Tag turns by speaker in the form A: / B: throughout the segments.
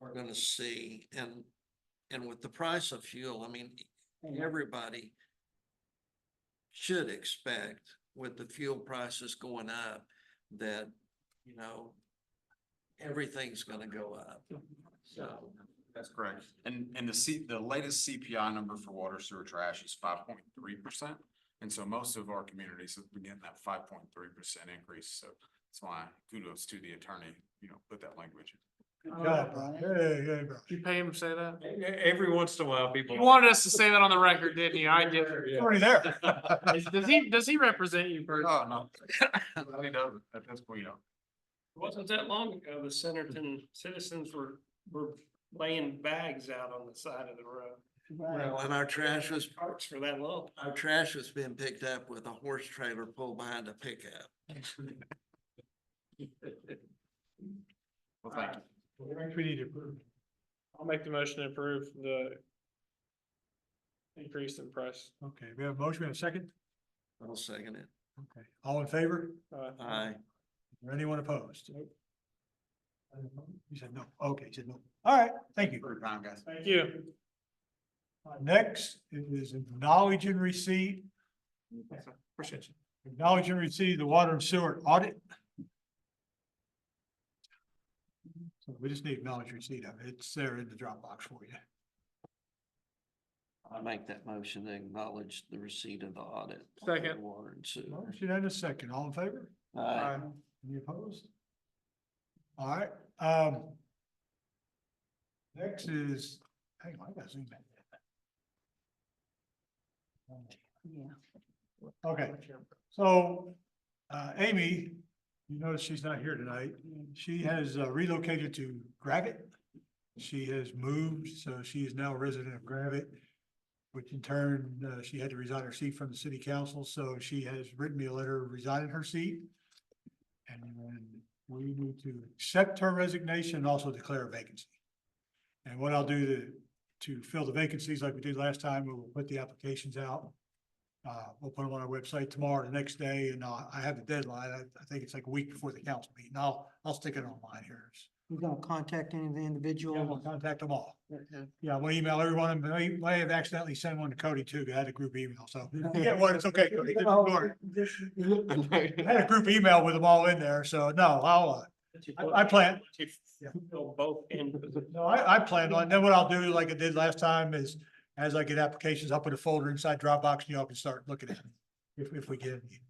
A: we're gonna see and, and with the price of fuel, I mean, everybody should expect with the fuel prices going up that, you know, everything's gonna go up. So,
B: That's correct. And, and the C, the latest CPI number for water sewer trash is five point three percent. And so most of our communities have been getting that five point three percent increase. So that's why kudos to the attorney, you know, put that language.
C: Good job, Brian. Hey, hey, Brian.
D: Uh, You pay him to say that?
E: E- Every once in a while, people.
D: You wanted us to say that on the record, didn't you? I did.
C: You're Already there.
D: Does he, does he represent you personally?
B: Oh, no. He doesn't. At this point, you know.
F: Wasn't that long ago, the Centerton citizens were, were laying bags out on the side of the road.
A: well, and our trash was,
F: Parks for that long.
A: our trash was being picked up with a horse trailer pulled behind a pickup.
B: Well, thank you.
C: We need to approve.
D: I'll make the motion to approve the increase in price.
C: Okay, we have a motion, we have a second?
A: I'll second it.
C: Okay, all in favor?
D: Uh,
A: Aye.
C: Or anyone opposed? You said no. Okay, you said no. All right, thank you.
B: For your time, guys.
D: Thank you.
C: Next is acknowledging receipt,
D: Appreciate you.
C: acknowledging receipt of the water and sewer audit. So we just need acknowledge receipt of it. It's there in the Dropbox for you.
A: I make that motion to acknowledge the receipt of the audit. on
D: Second.
A: Water and sewer.
C: Motion and a second, all in favor?
A: Aye.
C: Any opposed? All right, um. Next is, hang on, I gotta zoom back. Okay, so, uh, Amy, you notice she's not here tonight. She has uh, relocated to Gravit. She has moved, so she is now a resident of Gravit, which in turn, uh, she had to resign her seat from the city council, so she has written me a letter resigning her seat. And then we need to accept her resignation and also declare a vacancy. And what I'll do to, to fill the vacancies like we did last time, we will put the applications out. Uh, we'll put them on our website tomorrow, the next day, and I, I have a deadline. I, I think it's like a week before the council meeting. I'll, I'll stick it online here.
G: You're gonna contact any of the
C: Yeah, we'll
G: individuals?
C: contact them all.
G: Okay.
C: Yeah, we'll email everyone. I may, may have accidentally sent one to Cody too. 'cause I had a group email, so. Yeah, well, it's okay. Cody. Don't worry. I had a group email with them all in there, so no, I'll, uh, I- I plan-
F: To
C: Yeah.
F: fill both ends of the-
C: No, I, I plan on, then what I'll do, like I did last time, is as I get applications, I'll put a folder inside Dropbox and y'all can start looking at it. If, if we get any.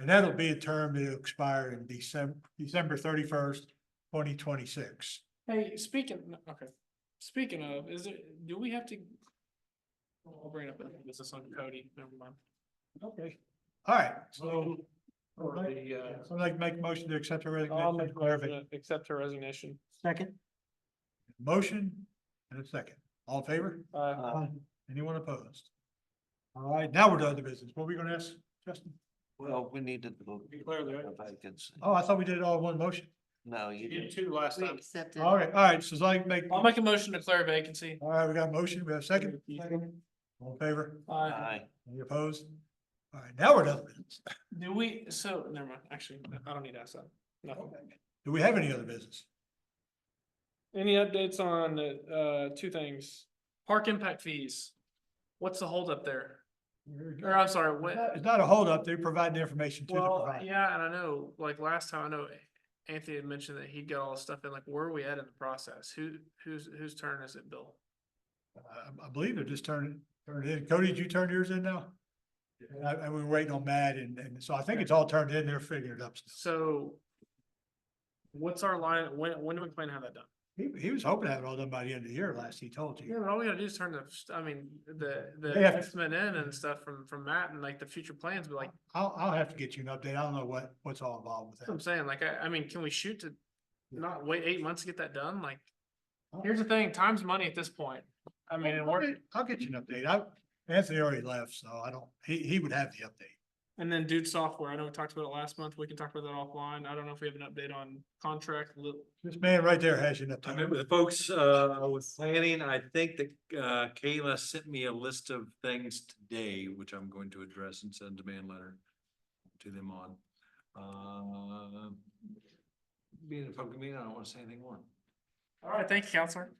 C: And that'll be a term that'll expire in December, December thirty-first, twenty twenty-six.
D: Hey, speaking, okay, speaking of, is it, do we have to? oh, I'll bring it up, this is on Cody, never mind. Oh,
C: Okay. All right, so,
D: So, for the, uh,
C: so I'd like to make a motion to accept her
D: I'll
C: resignation.
D: make a motion to accept her resignation.
G: Second?
C: Motion and a second. All in favor?
D: Uh,
A: Aye.
C: Anyone opposed? All right, now we're done to business. What were we gonna ask, Justin?
A: Well, we need to declare
F: Declare the-
A: the vacancy.
C: Oh, I thought we did it all in one motion.
A: No, you
F: You did
A: didn't.
F: two last
G: We
F: time.
G: accepted.
C: All right, all right, so I make.
D: I'll make a motion to declare a vacancy.
C: All right, we got a motion, we have a second, all in favor,
D: Uh,
A: Aye.
C: any opposed? All right, now we're done. with business.
D: do we, so, never mind, actually, I don't need to ask that, nothing.
C: Do we have any other business?
D: Any updates on, uh, two things? Park impact fees. What's the holdup there? Or I'm sorry,
C: It's
D: what?
C: not- It's not a holdup, they provide the information to the
D: Well,
C: provider.
D: yeah, and I know, like last time, I know Anthony had mentioned that he'd got all the stuff in, like, where are we at in the process? Who, whose, whose turn is it, Bill?
C: I- I believe they're just turning, turning in, Cody, did you turn yours in now? And I, and we're waiting on Matt, and, and so I think it's all turned in, they're figuring it up still.
D: So what's our line, when, when do we plan to have that done?
C: He, he was hoping to have it all done by the end of the year, last he told
D: Yeah,
C: you.
D: but all we gotta do is turn the, st- I mean, the,
C: They
D: the
C: have-
D: estimate in and stuff from, from Matt and like the future plans, but like,
C: I'll, I'll have to get you an update, I don't know what, what's all involved with
D: that's what I'm
C: that.
D: saying, like, I, I mean, can we shoot to not wait eight months to get that done? Like,
C: Oh.
D: here's the thing, time's money at this point. I mean, and
C: I'll
D: we're,
C: get- I'll get you an update, I, Anthony already left, so I don't, he, he would have the update.
D: And then Dude Software, I know we talked about it last month. We can talk about that offline. I don't know if we have an update on contract. li-
C: This man right there has you up
E: I
C: time.
E: met with folks, uh, with planning, I think that, uh, Kayla sent me a list of things today, which I'm going to address and send a demand letter to them on. Uh, being a public meeting, I don't want to say anything more.
D: All right, thank you, counselor.